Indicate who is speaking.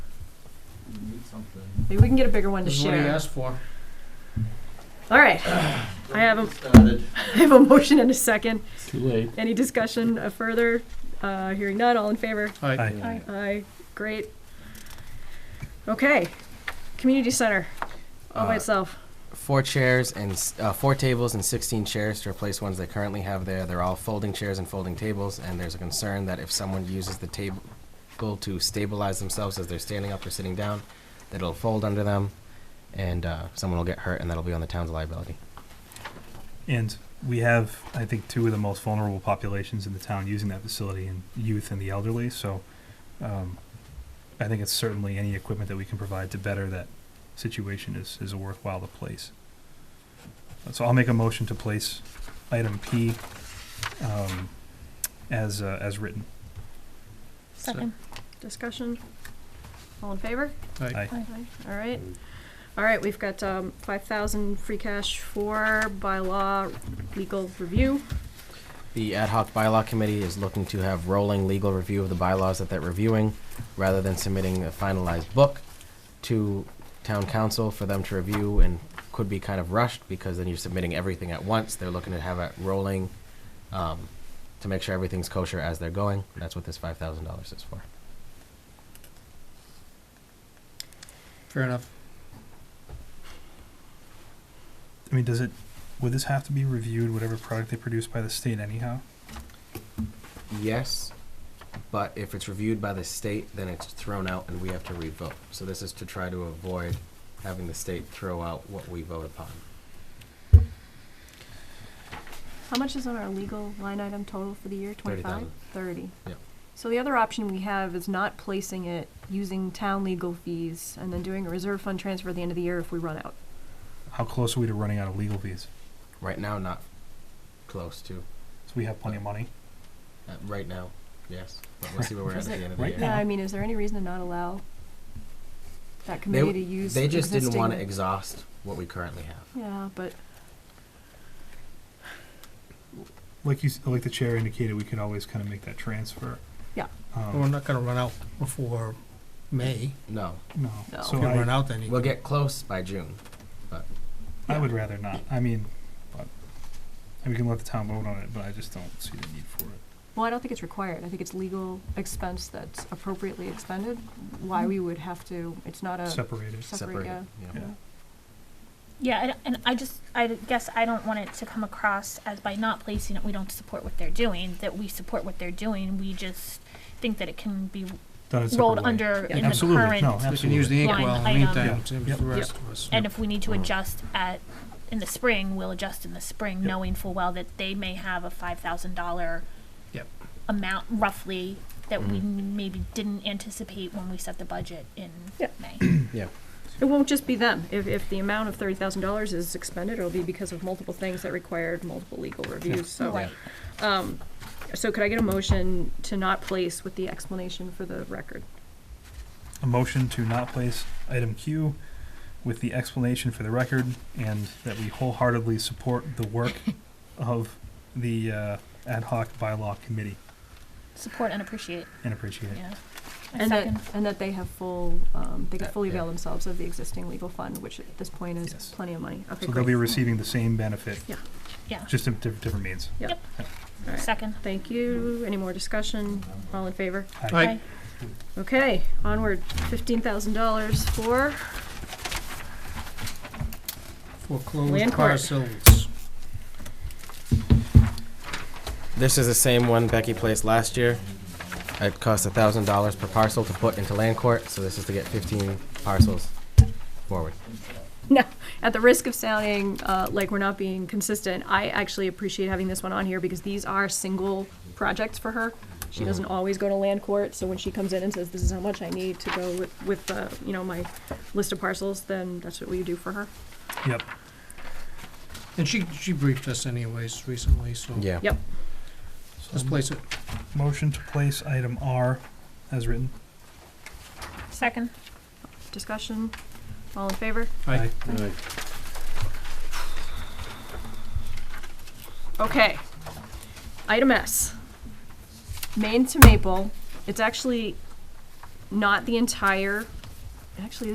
Speaker 1: something.
Speaker 2: Maybe we can get a bigger one to
Speaker 3: This is what he
Speaker 2: share.
Speaker 3: asked for.
Speaker 2: All right, I haven't-
Speaker 1: Started.
Speaker 2: I have a motion and a second.
Speaker 4: Too late.
Speaker 2: Any discussion uh, further? Uh, hearing none, all in favor?
Speaker 3: Aye.
Speaker 4: Aye.
Speaker 2: Aye, great. Okay, community center, all by
Speaker 5: Uh,
Speaker 2: itself.
Speaker 5: four chairs and s- uh, four tables and 16 chairs to replace ones they currently have there. They're all folding chairs and folding tables, and there's a concern that if someone uses the table to stabilize themselves as they're standing up or sitting down, that it'll fold under them, and uh, someone will get hurt, and that'll be on the town's liability.
Speaker 6: And we have, I think, two of the most vulnerable populations in the town using that facility, and youth and the elderly. So, um, I think it's certainly any equipment that we can provide to better that situation is is worthwhile to place. So I'll make a motion to place item P um, as uh, as written.
Speaker 3: Second.
Speaker 2: Discussion? All in favor?
Speaker 3: Aye.
Speaker 6: Aye.
Speaker 2: Aye. All right. All right, we've got um, 5,000 free cash for bylaw legal review.
Speaker 5: The ad hoc bylaw committee is looking to have rolling legal review of the bylaws that they're reviewing, rather than submitting a finalized book to town council for them to review, and could be kind of rushed, because then you're submitting everything at once. They're looking to have it rolling, um, to make sure everything's kosher as they're going. That's what this five thousand dollars is for.
Speaker 3: Fair enough.
Speaker 6: I mean, does it? Would this have to be reviewed? Whatever product they produce by the state, anyhow.
Speaker 5: Yes, but if it's reviewed by the state, then it's thrown out and we have to revote. So this is to try to avoid having the state throw out what we vote upon.
Speaker 2: How much is on our legal line item total for the year, 25?
Speaker 5: 30,000.
Speaker 2: 30.
Speaker 5: Yep.
Speaker 2: So the other option we have is not placing it, using town legal fees, and then doing a reserve fund transfer at the end of the year if we run out.
Speaker 6: How close are we to running out of legal fees?
Speaker 5: Right now, not close to.
Speaker 6: So we have plenty of money.
Speaker 5: Uh, right now, yes. But we'll see where we're at at the end of the
Speaker 6: Right
Speaker 5: year.
Speaker 2: Yeah,
Speaker 6: Yeah.
Speaker 2: I mean, is there any reason to not allow that
Speaker 5: They,
Speaker 2: committee to use
Speaker 5: they just didn't want to
Speaker 2: existing-
Speaker 5: exhaust what we currently have.
Speaker 2: Yeah, but,
Speaker 6: Like you, s- like the chair indicated, we could always kind of make that transfer.
Speaker 2: Yeah.
Speaker 3: But We're
Speaker 6: Um,
Speaker 3: not gonna run out before May.
Speaker 5: No,
Speaker 6: no.
Speaker 2: No.
Speaker 3: If
Speaker 6: So
Speaker 3: we run
Speaker 6: I,
Speaker 3: out, then you.
Speaker 5: we'll get close by June.
Speaker 6: I would rather not. I mean, but, and we can let the town vote on it, but I just don't see the need for it.
Speaker 2: well, I don't think it's required. I think it's legal expense that's appropriately expended. Why we would have to, it's not a,
Speaker 6: Separated.
Speaker 2: Separate, yeah.
Speaker 5: yeah.
Speaker 6: Yeah.
Speaker 7: Yeah, and, and I just, I guess I don't want it to come across as by not placing it, we don't support what they're doing, that we support what they're doing, we just think that it can be
Speaker 6: Done in separate
Speaker 7: rolled
Speaker 6: way.
Speaker 7: under
Speaker 2: Yeah.
Speaker 7: in the
Speaker 6: Absolutely.
Speaker 7: current,
Speaker 6: No,
Speaker 3: We can use
Speaker 6: absolutely.
Speaker 3: the ink
Speaker 7: Line
Speaker 3: well in the
Speaker 7: item.
Speaker 3: meantime,
Speaker 6: Yeah.
Speaker 3: same as the
Speaker 6: Yep.
Speaker 3: rest of us.
Speaker 7: and if we need to
Speaker 6: Mm-hmm.
Speaker 5: Mhm.
Speaker 7: adjust at, in the spring, we'll adjust in the spring,
Speaker 6: Yep.
Speaker 7: knowing full well that they may have a five thousand dollar
Speaker 3: Yep.
Speaker 7: amount roughly that we
Speaker 5: Mhm.
Speaker 6: Mm-hmm.
Speaker 7: maybe didn't anticipate when we set the budget in
Speaker 2: Yeah.
Speaker 7: May.
Speaker 2: it won't just be them. If, if the amount of thirty thousand dollars is expended, it'll be because of multiple things that required multiple legal reviews, so.
Speaker 7: Right.
Speaker 2: Um, so could I get a motion to not place with the explanation for the record?
Speaker 6: A motion to not place item Q with the explanation for the record and that we wholeheartedly support the work of the uh, ad hoc bylaw committee
Speaker 7: Support and appreciate,
Speaker 6: and appreciate it.
Speaker 7: yeah. I
Speaker 2: And that,
Speaker 7: second.
Speaker 2: and that they have full, um, they can
Speaker 5: Uh,
Speaker 2: fully
Speaker 5: yeah.
Speaker 2: avail themselves of the existing legal fund, which at this point is
Speaker 6: Yes.
Speaker 2: plenty of money. Okay,
Speaker 6: So they'll be
Speaker 2: great.
Speaker 6: receiving the same benefit.
Speaker 2: Yeah.
Speaker 7: Yeah.
Speaker 6: Just in diff- different means.
Speaker 2: All right.
Speaker 7: Second.
Speaker 2: Thank you. Any more discussion? All in favor?
Speaker 3: Aye.
Speaker 7: Aye.
Speaker 2: Okay, onward. Fifteen thousand dollars for, Land
Speaker 3: Foreclosed
Speaker 2: court.
Speaker 3: parcels.
Speaker 5: This is the same one Becky placed last year. It cost thousand dollars per parcel to put into land court, so this is to get fifteen parcels forward.
Speaker 2: no, at the risk of sounding, uh, like we're not being consistent, I actually appreciate having this one on here because these are single projects for her. She doesn't always go to land court, so when she comes in and says, this is how much I need to go with, with, uh, you know, my list of parcels, then that's what we do for her.
Speaker 6: Yep.
Speaker 3: And she, she briefed us anyways recently, so
Speaker 5: Yeah.
Speaker 2: Yep.
Speaker 3: let's place it.
Speaker 6: Motion to place item R as written.
Speaker 7: Second.
Speaker 2: Discussion? All in favor?
Speaker 3: Aye.
Speaker 2: Okay. Item S. Maine to Maple. It's actually not the entire, actually,